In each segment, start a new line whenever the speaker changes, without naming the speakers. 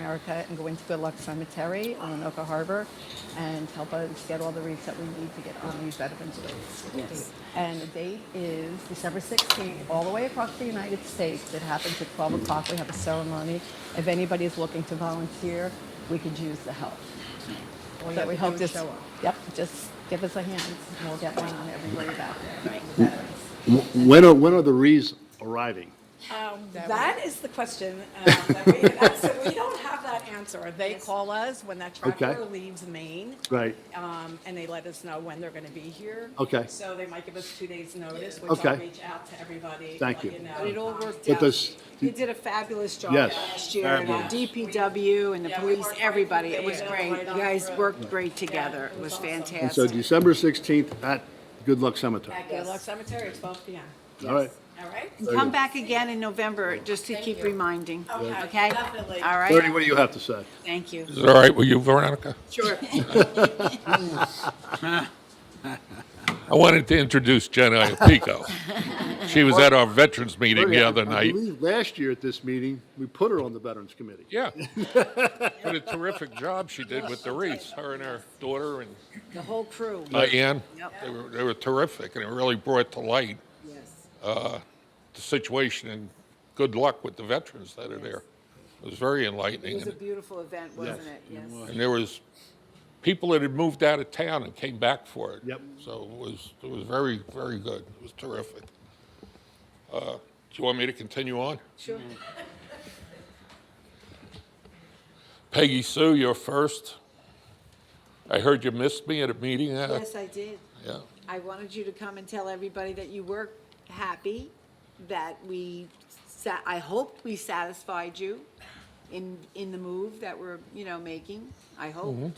America and go into Good Luck Cemetery on Anoka Harbor and help us get all the wreaths that we need to get on these veterans' graves.
Yes.
And the date is December 16th, all the way across the United States. It happens at 12 o'clock. We have a ceremony. If anybody is looking to volunteer, we could use the help.
All you
So
have
we
to
hope
do
this-
is show up.
Yep, just give us a hand, and we'll get one on every grave out there. Veterans.
Wh- When are, when are the wreaths arriving?
That is the question uh, that we had asked. So we don't have that answer. They call us when that tractor
Okay.
leaves Maine.
Right.
um, And they let us know when they're going to be here.
Okay.
So they might give us two days' notice, which I'll
Okay.
reach out to everybody.
Thank
let
you.
know.
But it all worked
It
out.
does-
You did a fabulous job
Yes,
last year, and our
fabulous.
DPW and the
Yeah, we
police,
worked right
everybody,
through
it was
the-
great.
right
You
on
guys
through.
worked great together,
it
it
was
was
awesome.
And so
fantastic.
December 16th at Good Luck Cemetery.
At Gaylock Cemetery at 12 PM.
All right.
All right?
Very
Come
good.
back again in November, just to keep reminding,
Okay,
okay?
definitely.
All
Bernie,
right,
what do you have to say?
thank you.
Is it all right with you, Veronica?
Sure.
I wanted to introduce Jen Iapico. She was at our veterans meeting
Bernie,
the
I-
other
I
night.
believe last year at this meeting, we put her on the Veterans Committee.
Yeah. What a terrific job she did with the wreaths, her and her daughter and
The whole crew,
Diane.
Yep.
They were, they were terrific, and it really brought to light
yes.
the situation and good luck with the veterans that are there. It was very
It
enlightening.
was a
And
beautiful event, wasn't
Yes,
it? Yes.
and there was people that had moved out of town and came back for it.
Yep.
So it was, it was very, very good. It was terrific. Uh, Do you want me to continue on?
Sure.
Peggy Sue, you're first. I heard you missed me at a meeting. uh,
Yes, I did.
Yeah,
I wanted you to come and tell everybody that you were happy, that we, sa- I hope we satisfied you in, in the move that we're, you know, making, I
Mm-hmm.
hope.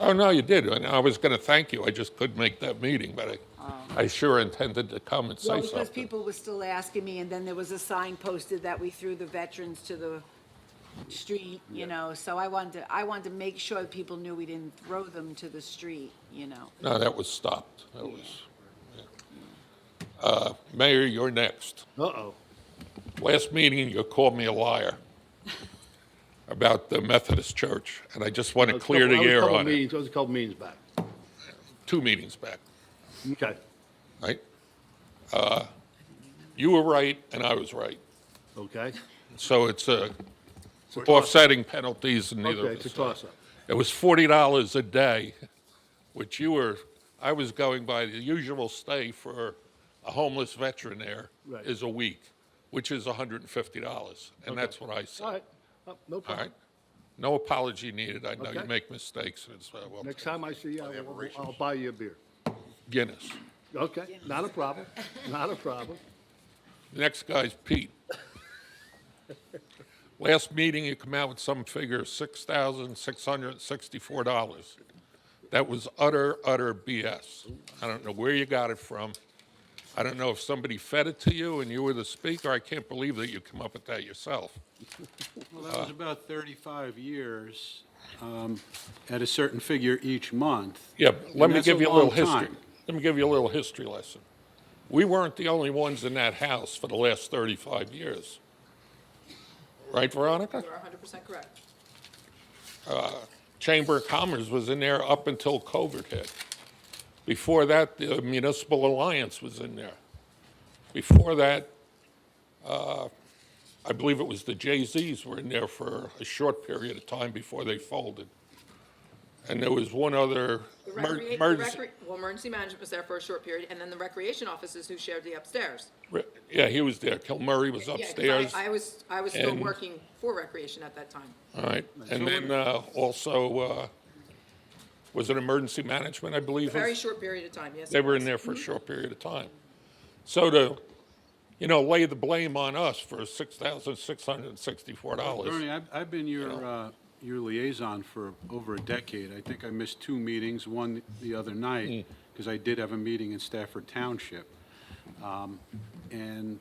Oh, no, you did. And I was going to thank you. I just couldn't make that meeting, but I, I sure intended to come and
Oh. Well,
say
because
something.
people were still asking me, and then there was a sign posted that we threw the veterans to the street, you know, so I wanted, to I wanted to make sure that people knew we didn't throw them to the street, you know.
No, that was stopped. That was, yeah. Uh, Mayor, you're next.
Uh-oh.
Last meeting, you called me a liar about the Methodist Church, and I just want
I
to
was
clear
couple-
the
I was a
air
couple
on it.
meetings- I was a couple meetings back.
Two meetings back.
Okay.
right? Uh, You were right, and I was right.
Okay.
So it's uh, offsetting penalties and neither
Okay, it's
of
a
us. are.
toss-up.
It was $40 a day, which you were, I was going by the usual stay for a homeless veteran there
Right.
is a week, which is $150. And that's what I said.
All right. Uh, No
All
problem.
right? No apology needed. I know you
Okay.
make mistakes. and it's, uh, well,
Next time I see you, I will-
Aberrations.
I'll buy you a beer.
Guinness.
Okay, not a problem, not a problem.
The next guy's Pete. Last meeting, you come out with some figure, six thousand six hundred sixty-four dollars. That was utter, utter BS. I don't know where you got it from. I don't know if somebody fed it to you and you were the speaker. I can't believe that you come up with that yourself.
Well,
Uh.
that was about 35 years um, at a certain figure each month.
Yeah, but
And
let me
that's a
give you a little
long
history.
time.
Let me give you a little history lesson. We weren't the only ones in that house for the last thirty-five years. Right, Veronica?
You're 100% correct.
Chamber of Commerce was in there up until COVID hit. Before that, the Municipal Alliance was in there. Before that, uh, I believe it was the Jay-Z's were in there for a short period of time before they folded. And there was one other
The
mer-
recre- the
emergency-
recre- Well, emergency management was there for a short period, and then the recreation officers who shared the upstairs.
re- yeah, he was there. Kilmurray was
Yeah, 'cause I-
upstairs.
I was, I was still
and-
working for recreation at that time.
All right. And then uh, also, uh, was it emergency management, I believe? was-
Very short Mm-hmm. period of time, yes.
They were in there for a short period of time. So to, you know, lay the blame on us for six thousand six hundred and sixty-four
Bernie,
dollars.
I've, I've been your, uh, your liaison for over a decade. I think I missed two meetings, one the other night,
Hmm.
because I did have a meeting in Stafford Township. Um, And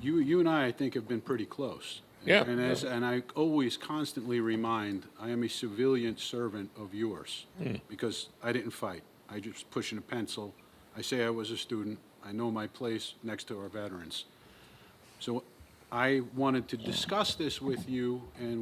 you, you and I, I think, have been pretty close.
Yeah.
And as, and I always constantly remind, I am a civilian servant of yours, because I didn't fight. I just pushing a pencil. I say I was a student. I know my place next to our veterans. So I wanted to discuss this with you and